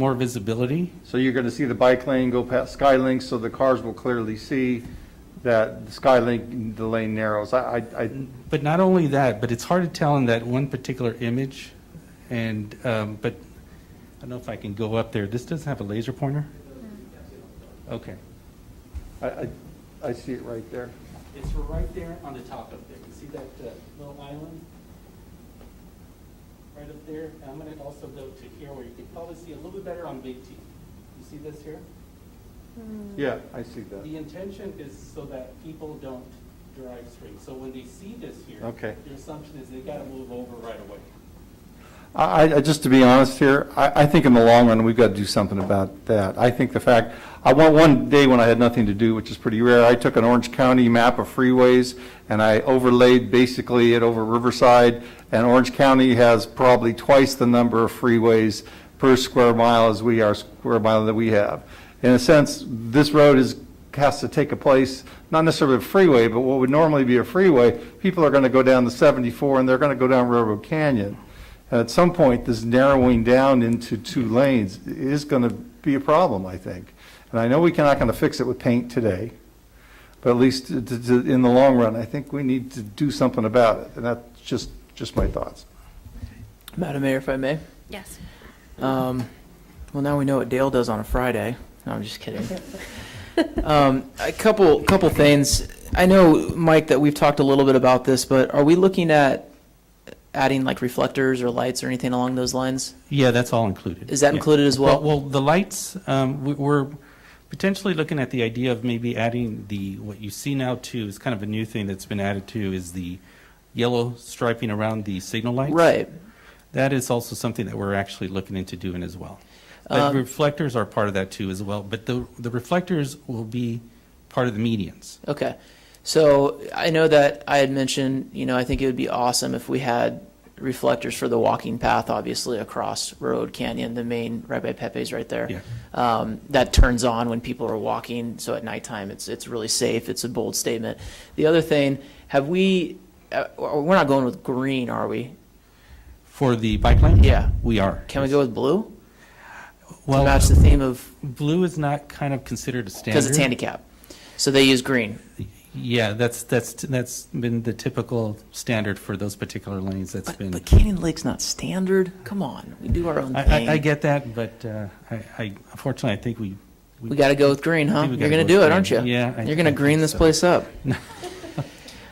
more visibility. So you're going to see the bike lane go past Skylink, so the cars will clearly see that the Skylink, the lane narrows. I, I, I- But not only that, but it's hard to tell in that one particular image. And, um, but I don't know if I can go up there. This doesn't have a laser pointer? Okay. I, I, I see it right there. It's right there on the top up there. You see that uh, little island? Right up there. And I'm going to also go to here where you can probably see a little bit better on Big T. You see this here? Yeah, I see that. The intention is so that people don't drive straight. So when they see this here, Okay. their assumption is they got to move over right away. I, I, just to be honest here, I, I think in the long run, we've got to do something about that. I think the fact, I want, one day when I had nothing to do, which is pretty rare, I took an Orange County map of freeways and I overlaid basically it over Riverside. And Orange County has probably twice the number of freeways per square mile as we are, square mile that we have. In a sense, this road is, has to take a place, not necessarily a freeway, but what would normally be a freeway, people are going to go down the 74 and they're going to go down Railroad Canyon. And At some point, this narrowing down into two lanes is going to be a problem, I think. And I know we're not going to fix it with paint today, but at least to- to- to- in the long run, I think we need to do something about it. And that's just, just my thoughts. Madam Mayor, if I may. Yes. Um, well, now we know what Dale does on a Friday. No, I'm just kidding. um, a couple, couple things. I know, Mike, that we've talked a little bit about this, but are we looking at adding like reflectors or lights or anything along those lines? Yeah, that's all included. Is that Yeah. included as well? Well, the lights, um, we- we're potentially looking at the idea of maybe adding the, what you see now too, is kind of a new thing that's been added to, is the yellow striping around the signal lights. Right. That is also something that we're actually looking into doing as well. But Um, reflectors are part of that too as well, but the, the reflectors will be part of the medians. Okay. So I know that I had mentioned, you know, I think it would be awesome if we had reflectors for the walking path, obviously across Road Canyon, the main, right by Pepe's right there. Yeah. Um, that turns on when people are walking, so at nighttime, it's, it's really safe. It's a bold statement. The other thing, have we, uh, we're not going with green, are we? For the bike lane? Yeah. We are. Can we go with blue? To Well, match the theme of, Blue is not kind of considered a standard. because it's handicap. So they use green. Yeah, that's, that's, that's been the typical standard for those particular lanes. That's But, been. but Canyon Lake's not standard. Come on, we do our own I, thing. I, I get that, but uh, I, I unfortunately, I think we. We got to go with green, huh? think we You're gotta going to go do with it, aren't you? green. Yeah, I- You're going to I green think this so. place up.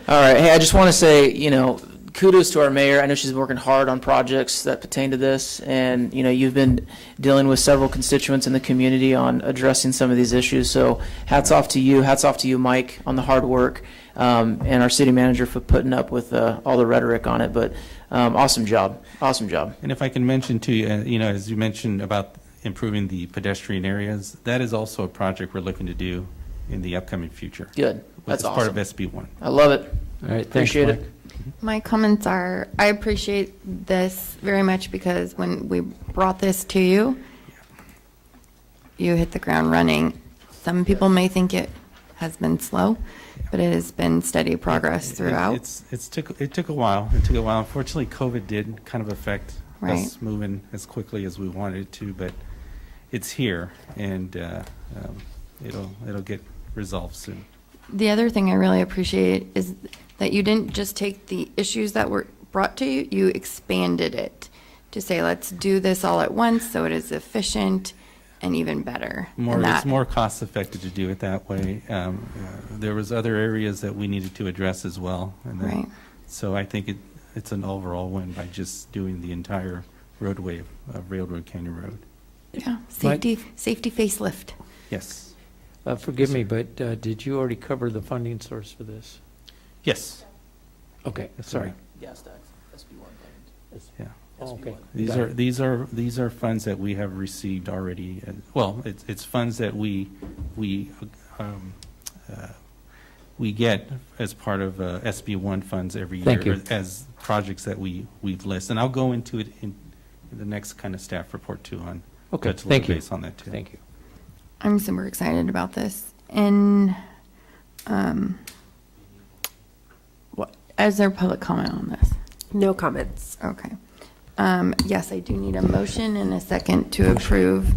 All right. Hey, I just want to say, you know, kudos to our mayor. I know she's working hard on projects that pertain to this. And, you know, you've been dealing with several constituents in the community on addressing some of these issues. So hats off to you. Hats off to you, Mike, on the hard work. Um, and our city manager for putting up with uh, all the rhetoric on it. But um, awesome job. Awesome job. And if I can mention to you, uh, you know, as you mentioned about improving the pedestrian areas, that is also a project we're looking to do in the upcoming future. Good. which That's is Part of awesome. SB one. I love it. All right, thanks, Appreciate Mike. it. My comments are, I appreciate this very much because when we brought this to you, you hit the ground running. Some people may think it has been slow, but it has been steady progress It- throughout. It's, it's took, it took a while. It took a while. Unfortunately, COVID did kind of affect Right. us moving as quickly as we wanted it to, but it's here and uh, um, it'll, it'll get resolved soon. The other thing I really appreciate is that you didn't just take the issues that were brought to you, you expanded it to say, let's do this all at once so it is efficient and even better. And More, it's that- more cost effective to do it that way. Um, uh, There was other areas that we needed to address as well. and then- Right. So I think it, it's an overall win by just doing the entire roadway of of Railroad Canyon Road. Yeah, safety, safety facelift. Yes. Uh, Forgive me, but uh, did you already cover the funding source for this? Yes. Okay, That's sorry. right. Gas tax, SB1. Yeah. Oh, Okay. These Got are, it. these are, these are funds that we have received already, uh, well, it's, it's funds that we, we, um, uh, we get as part of uh, SB one funds every year. Thank you. As projects that we, we've listed, and I'll go into it in the next kind of staff report too on. Okay, touch a little thank you. base On that too. Thank you. I'm super excited about this. And um, what, is there public comment on this? No comments. Okay. Um, Yes, I do need a motion and a second to approve